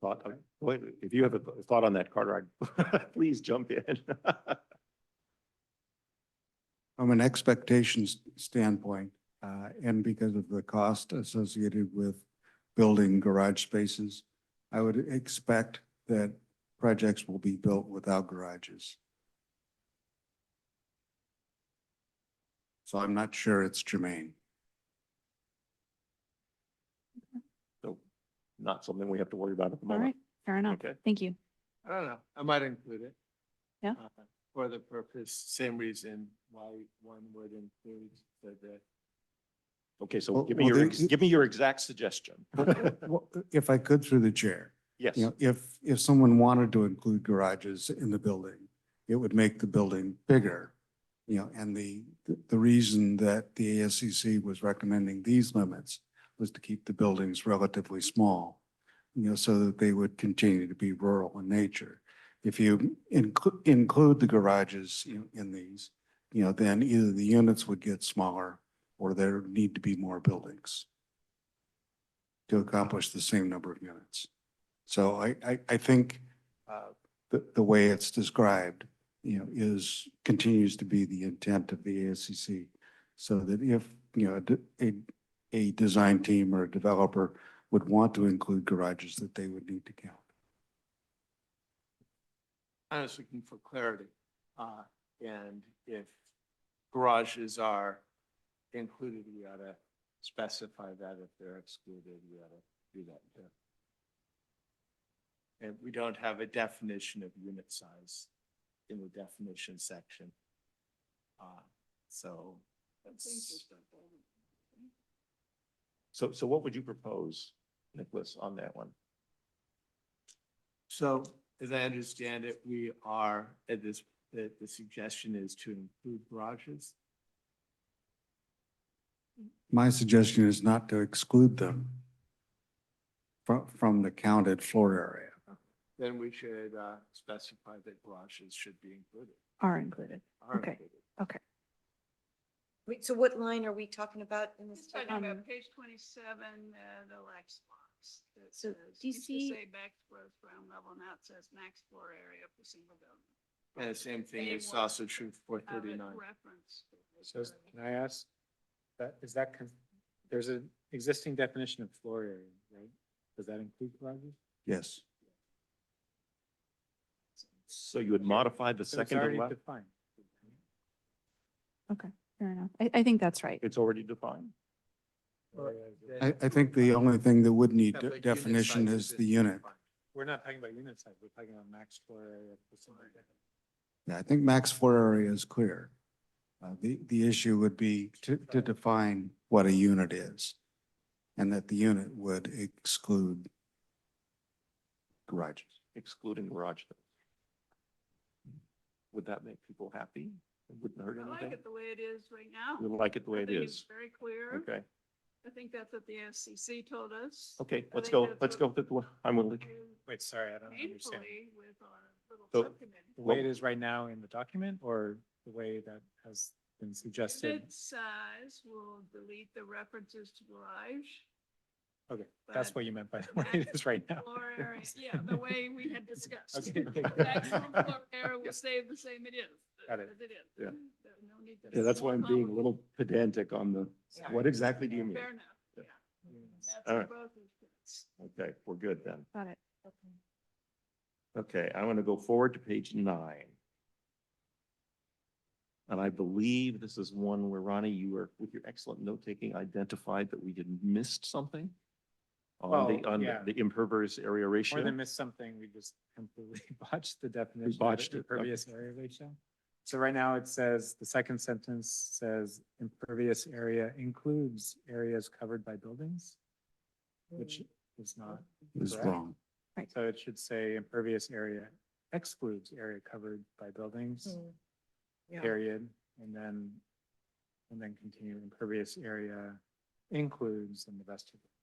thought, uh, wait, if you have a thought on that, Carter, I- please jump in. From an expectations standpoint, uh, and because of the cost associated with building garage spaces, I would expect that projects will be built without garages. So I'm not sure it's germane. So not something we have to worry about at the All right, moment. fair enough. Okay. Thank you. I don't know. I might include it. Yeah. uh, For the purpose, same reason why one would include the, the Okay, so Well- give me well, your, the- ex- give me your exact suggestion. Well, If I could through the chair. Yes, You know, if, if someone wanted to include garages in the building, it would make the building bigger. You know, and the, the reason that the ASCC was recommending these limits was to keep the buildings relatively small, you know, so that they would continue to be rural in nature. If you include, include the garages you know, in these, you know, then either the units would get smaller or there need to be more buildings to accomplish the same number of units. So I, I, I think uh, the, the way it's described, you know, is, continues to be the intent of the ASCC. So that if, you know, a de- a, a design team or a developer would want to include garages, that they would need to count. I was looking for clarity. Uh, and if garages are included, we ought to specify that. If they're excluded, we ought to do that too. And we don't have a definition of unit size in the definition section. Uh, so that's, so, so what would you propose, Nicholas, on that one? so as I understand it, we are at this, the, the suggestion is to include garages. My suggestion is not to exclude them from, from the counted floor area. Then we should, uh, specify that garages should be included. Are included. are Okay. included. Wait, so what line are we talking about in this? It's talking Um, about page twenty-seven, uh, the max box. that So says, used to DC Say max floor ground level, now it says max floor area for single building. And the same thing They is want also true for Have it thirty-nine. referenced. So is- can I ask, that, is that, con- there's an existing definition of floor area, right? Does that include garages? Yes. So you would modify the So second it's to the already left? defined. Fair enough. I, I think that's right. It's already defined? Or I, that- I think the only thing that would need that like unit definition size is the isn't unit. defined. We're not talking about unit size, we're talking about max floor area. for something like that. Yeah, I think max floor area is clear. Uh, the, the issue would be to, to define what a unit is. And that the unit would exclude garages. excluding garage doors. Would that make people happy? It wouldn't hurt I like anything? it the way it is right now. You like it the way I it think it's is? Very clear. Okay, I think that's what the FCC told us. okay, I let's think go, that's let's go what with it. I'm willing. we Wait, sorry, I don't understand. Painfully with our little So- subcommittee. The way it is right now in the document or the way that has been suggested? Unit size will delete the references to garage. Okay, that's but- what you meant by the way it is right now. Floor area, yeah, the way we had discussed. Okay, okay, The maximum floor area will stay the same it is. Got it. as is. Yeah. There- no need to- Yeah, that's why I'm being a little pedantic on the, Sorry. what exactly do you mean? Um, Fair enough, yeah. That's All right. both of us. Okay, we're good then. Got it. Okay, I want to go forward to page nine. And I believe this is one where Ronnie, you were, with your excellent note taking, identified that we had missed something on the, Oh, on yeah. the impervious area ratio. More than missed something, we just completely botched the definition. of botched it, okay. Impervious area ratio. So right now it says, the second sentence says impervious area includes areas covered by buildings, which is not, Is Correct. wrong. so it should say impervious area excludes area covered by buildings, Mm, period. And then, and then continue impervious area includes and the rest of it.